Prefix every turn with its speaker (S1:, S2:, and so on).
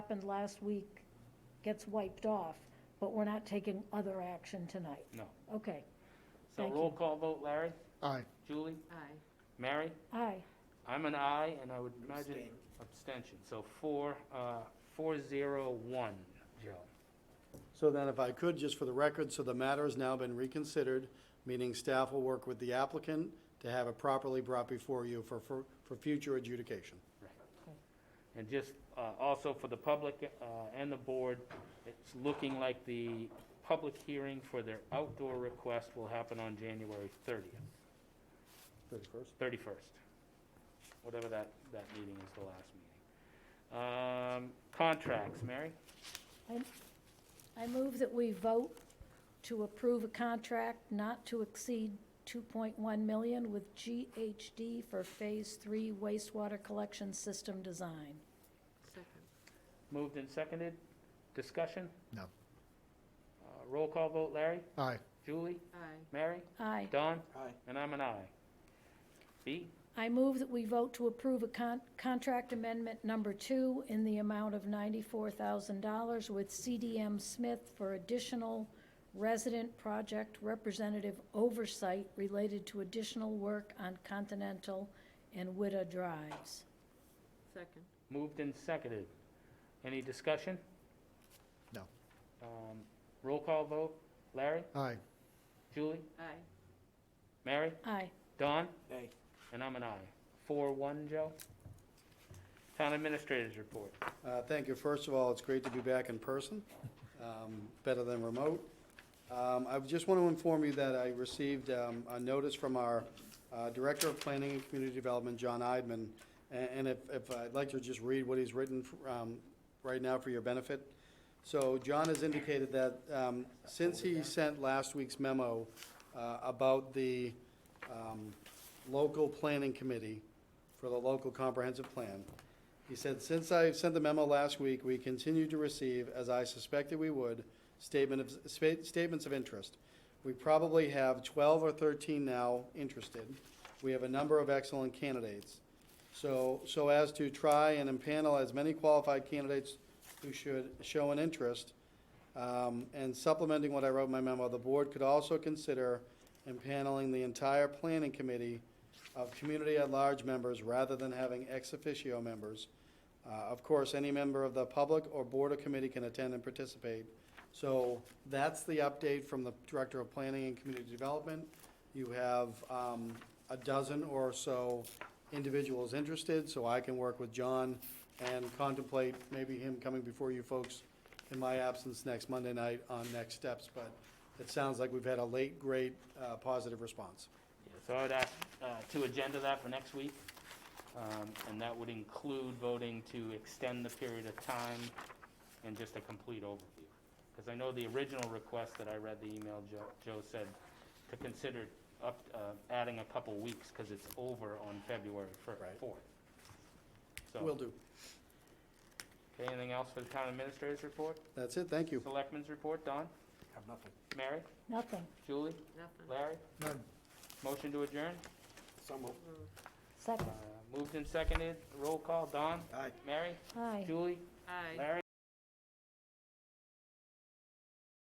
S1: happened last week gets wiped off, but we're not taking other action tonight.
S2: No.
S1: Okay,
S2: So
S1: Thank
S2: roll
S1: you.
S2: call vote, Larry,
S3: Aye.
S2: Julie,
S4: Aye.
S2: Mary?
S1: aye,
S2: I'm an aye, and I would imagine abstention. So four, uh, four zero one, Joe.
S3: So then if I could, just for the record, so the matter has now been reconsidered, meaning staff will work with the applicant to have it properly brought before you for, for, for future adjudication.
S2: And just, uh, also for the public, uh, and the board, it's looking like the public hearing for their outdoor request will happen on January thirtieth,
S3: Thirty-first?
S2: thirty-first. Whatever that, that meeting is, the last meeting. Um, contracts, Mary?
S1: I move that we vote to approve a contract not to exceed 2.1 million with GHD for Phase 3 wastewater collection system design.
S4: Second.
S2: Moved and seconded. Discussion?
S3: No.
S2: Uh, roll call vote, Larry,
S3: Aye.
S2: Julie,
S4: Aye.
S2: Mary,
S1: Aye.
S2: Don,
S3: Aye.
S2: and I'm an aye. B?
S1: I move that we vote to approve a con- contract amendment number two in the amount of $94,000 with CDM Smith for additional resident project representative oversight related to additional work on Continental and Widda Drives.
S4: Second.
S2: Moved and seconded. Any discussion?
S3: No.
S2: Um, Roll call vote. Larry?
S3: Aye.
S2: Julie?
S4: Aye.
S2: Mary?
S1: Aye.
S2: Don?
S3: Aye.
S2: And I'm an aye. Four, one, Joe. Town Administrator's Report.
S3: Uh, Thank you. First of all, it's great to be back in person, um, better than remote. Um, I just want to inform you that I received um, a notice from our uh, Director of Planning and Community Development, John Idman, a- and if, if, I'd like to just read what he's written um, right now for your benefit. So John has indicated that um, since he sent last week's memo uh, about the um, local planning committee for the local comprehensive plan, he said, since I sent the memo last week, we continue to receive, as I suspected we would, statement of, spa- statements of interest. We probably have twelve or thirteen now interested. We have a number of excellent candidates. So, so as to try and impanel as many qualified candidates who should show an interest, um, and supplementing what I wrote in my memo, the board could also consider impaneling the entire planning committee of community at-large members rather than having ex officio members. Uh, Of course, any member of the public or board or committee can attend and participate. So that's the update from the Director of Planning and Community Development. You have um, a dozen or so individuals interested, so I can work with John and contemplate maybe him coming before you folks in my absence next Monday night on next steps. But it sounds like we've had a late, great, uh, positive response.
S2: So I would ask uh, to agenda that for next week, Um, and that would include voting to extend the period of time and just a complete overview. Because I know the original request that I read the email, Joe, Joe said to consider up, uh, adding a couple weeks because it's over on February fir-
S3: Right.
S2: 4th.
S3: Will
S2: So,
S3: do.
S2: okay, anything else for the town administrator's report?
S3: That's it, thank you.
S2: Selectmen's report, Don?
S3: Have nothing.
S2: Mary?
S1: Nothing.
S2: Julie?
S4: Nothing.
S2: Larry?
S3: None.
S2: Motion to adjourn?
S4: Moved.
S2: Uh,
S1: Second.
S2: Moved and seconded, roll call, Don?
S3: Aye.
S2: Mary?
S1: Aye.
S2: Julie?
S4: Aye.
S2: Larry?